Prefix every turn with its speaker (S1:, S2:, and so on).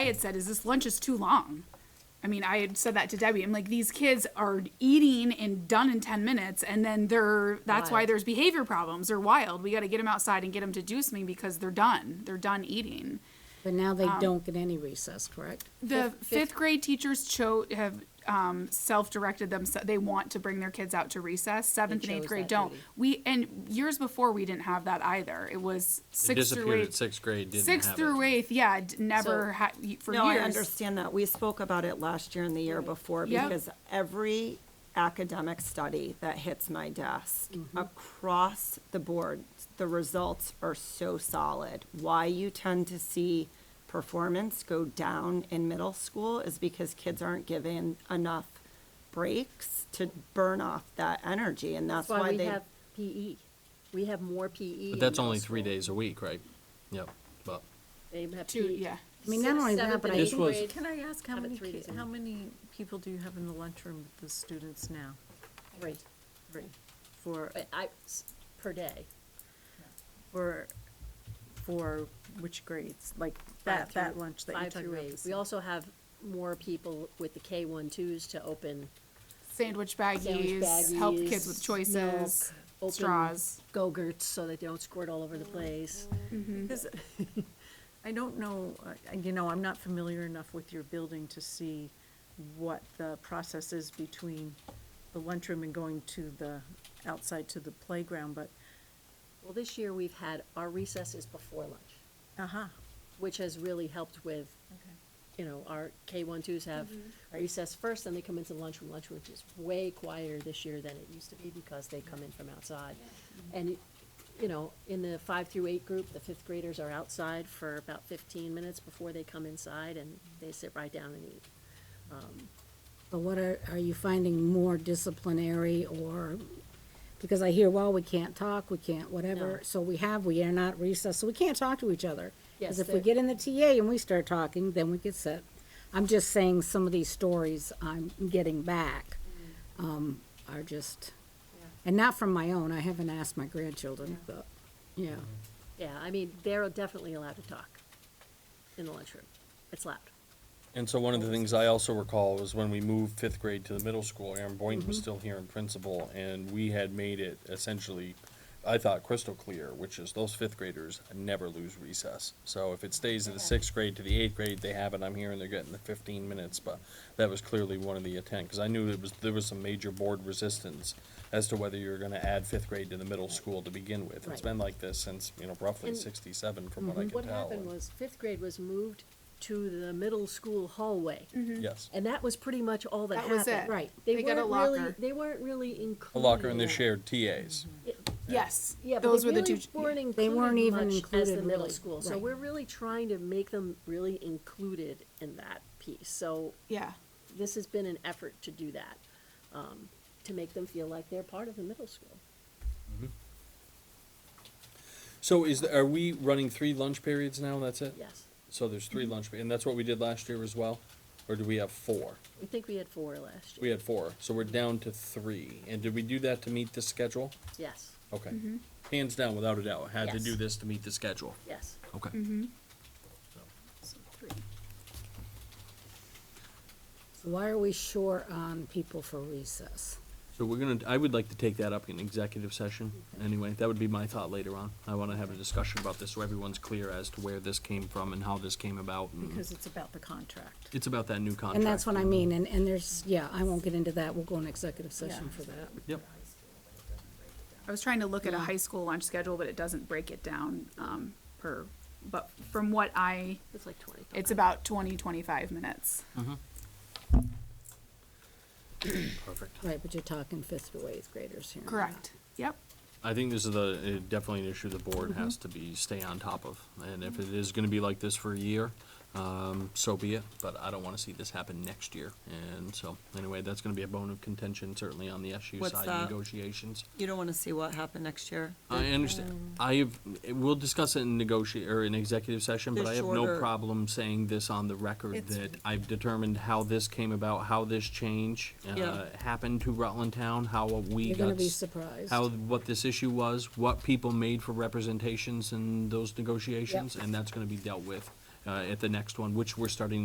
S1: I had said is this lunch is too long. I mean, I had said that to Debbie. I'm like, these kids are eating and done in 10 minutes, and then they're that's why
S2: Wild.
S1: there's behavior problems. They're wild. We got to get them outside and get them to do something because they're done. They're done eating.
S2: But now they
S1: Um,
S2: don't get any recess, correct?
S1: The fifth grade teachers cho- have um, self-directed them. They want to bring their kids out to recess. Seventh and eighth
S2: chose
S1: grade
S2: that
S1: don't.
S2: duty.
S1: We and years before we didn't have that either. It was
S3: It
S1: sixth through
S3: disappeared at
S1: eighth.
S3: sixth grade, didn't
S1: Sixth
S3: have it.
S1: through eighth, yeah, d- never
S2: So-
S1: had for
S4: No, I
S1: years.
S4: understand that. We spoke about it last year and the year before
S1: Yep.
S4: because every academic study that hits my desk across the board, the results are so solid. Why you tend to see performance go down in middle school is because kids aren't given enough breaks to burn off that energy and that's
S2: That's why
S4: why
S2: we
S4: they.
S2: have PE. We have more PE.
S3: But that's
S2: in middle
S3: only three
S2: school.
S3: days a week, right? Yep, but
S2: They have E.
S1: Two,
S2: PE.
S1: yeah.
S2: I mean, not only that,
S5: Seventh
S2: but I
S5: and
S3: This
S2: think
S5: eighth
S3: was-
S5: grade, Can I ask how
S2: have it
S5: many,
S2: three
S5: ki-
S2: days a
S5: how
S2: week.
S5: many people do you have in the lunchroom with the students now?
S2: three,
S5: Three. For,
S2: but I, s- per day.
S5: for, for which grades? Like that,
S2: through-
S5: that lunch that you're
S2: Five
S5: talking
S2: through
S5: about?
S2: eight.
S5: this-
S2: We also have more people with the K one twos to open
S1: Sandwich
S2: sandwich
S1: baggies,
S2: baggies.
S1: help kids with choices,
S2: milk, open
S1: straws. Mm.
S2: Go-gurts so that they don't squirt all over the place.
S5: Because I don't know, uh, you know, I'm not familiar enough with your building to see what the process is between the lunchroom and going to the, outside to the playground, but,
S2: Well, this year we've had, our recess is before lunch,
S5: uh-huh.
S2: which has really helped with, you know, our K one twos have recess first, then they come into lunchroom. Lunchroom is way quieter this year than it used to be because they come in from outside. And, you know, in the five through eight group, the fifth graders are outside for about fifteen minutes before they come inside and they sit right down and eat.
S6: But what are, are you finding more disciplinary or, because I hear, well, we can't talk, we can't
S2: No.
S6: whatever, so we have, we are not recessed, so we can't talk to each other.
S2: Yes,
S6: Because if we
S2: there-
S6: get in the TA and we start talking, then we get set. I'm just saying some of these stories I'm getting back, um, are just, and not from my own, I haven't asked my grandchildren, but, yeah.
S2: Yeah, I mean, they're definitely allowed to talk in the lunchroom. It's loud.
S3: And so one of the things I also recall was when we moved fifth grade to the middle school, Aaron Boynton
S2: Mm-hmm.
S3: was still here in principal, and we had made it essentially, I thought crystal clear, which is those fifth graders never lose recess. So if it stays in the sixth grade to the eighth grade, they have it, I'm here and they're getting the fifteen minutes, but that was clearly one of the intent, because I knew it was, there was some major board resistance as to whether you were gonna add fifth grade to the middle school to begin with. It's
S2: Right.
S3: been like this since, you know, roughly
S2: And- Mm-hmm.
S3: sixty-seven from what I can tell.
S2: What happened
S3: and-
S2: was fifth grade was moved to the middle school hallway.
S3: Yes.
S2: And that was pretty much all that
S1: That
S2: happened.
S1: was it.
S6: Right.
S2: They
S1: They got a
S2: weren't really,
S1: locker.
S2: they weren't really
S3: A
S2: included.
S3: locker and
S2: in
S3: the
S2: that.
S3: shared
S2: Mm-hmm.
S3: TAs.
S1: Yes,
S2: Yeah, but
S1: those
S2: they
S1: were the
S2: really
S1: two.
S2: Weren't included
S6: They weren't even
S2: much as
S6: included
S2: the middle
S6: really,
S2: school. So
S6: right.
S2: we're really trying to make them really included in that piece. So
S1: Yeah,
S2: this has been an effort to do that, um, to make them feel like they're part of the middle school.
S3: So is, the- are we running three lunch periods now, and that's it?
S2: Yes.
S3: So there's three
S6: Mm-hmm.
S3: lunch, pe- and that's what we did last year as well? Or do we have four?
S2: I think we had four last year.
S3: We had four, so we're down to three. And did we do that to meet the schedule?
S2: Yes,
S3: Okay.
S6: Mm-hmm.
S3: Hands down, without a doubt, had to do
S2: Yes.
S3: this to meet the schedule.
S2: yes.
S3: Okay.
S6: Mm-hmm.
S1: so three.
S6: Why are we short on people for recess?
S3: So we're gonna, I would like to take that up in executive session,
S6: Mm-hmm.
S3: anyway, that would be my thought later on. I wanna have a discussion about this, so everyone's clear as to where this came from and how this came about. and
S5: Because it's about the contract.
S3: It's about that new contract.
S6: And that's what I mean, and, and there's, yeah, I won't get into that, we'll go in executive session
S5: Yeah.
S6: for that.
S3: Yep.
S1: I was trying to look at a high school lunch schedule, but it doesn't break it down um, per. But from what I,
S2: It's like twenty.
S1: it's about 20, 25 minutes.
S3: Perfect.
S6: Right, but you're talking fifth to eighth graders here.
S1: Correct. Yep.
S3: I think this is the, uh, definitely an issue the board has
S4: Mm-hmm.
S3: to be, stay on top of. And if it is gonna be like this for a year, um, so be it, but I don't wanna see this happen next year. And so, anyway, that's gonna be a bone of contention certainly on the SU
S4: What's
S3: side
S4: that?
S3: negotiations.
S4: You don't want to see what happened next year?
S3: I understand. I have, eh, we'll discuss it in negotia, or in executive session, but
S4: The
S3: I have no
S4: shorter-
S3: problem saying this on the record
S4: It's-
S3: that I've determined how this came about, how this change, uh,
S4: Yeah.
S3: happened to Rutland Town, how we got.
S6: You're gonna be
S3: s-
S6: surprised.
S3: how, what this issue was, what people made for representations in those negotiations, and that's gonna be dealt with uh, at the next one, which we're starting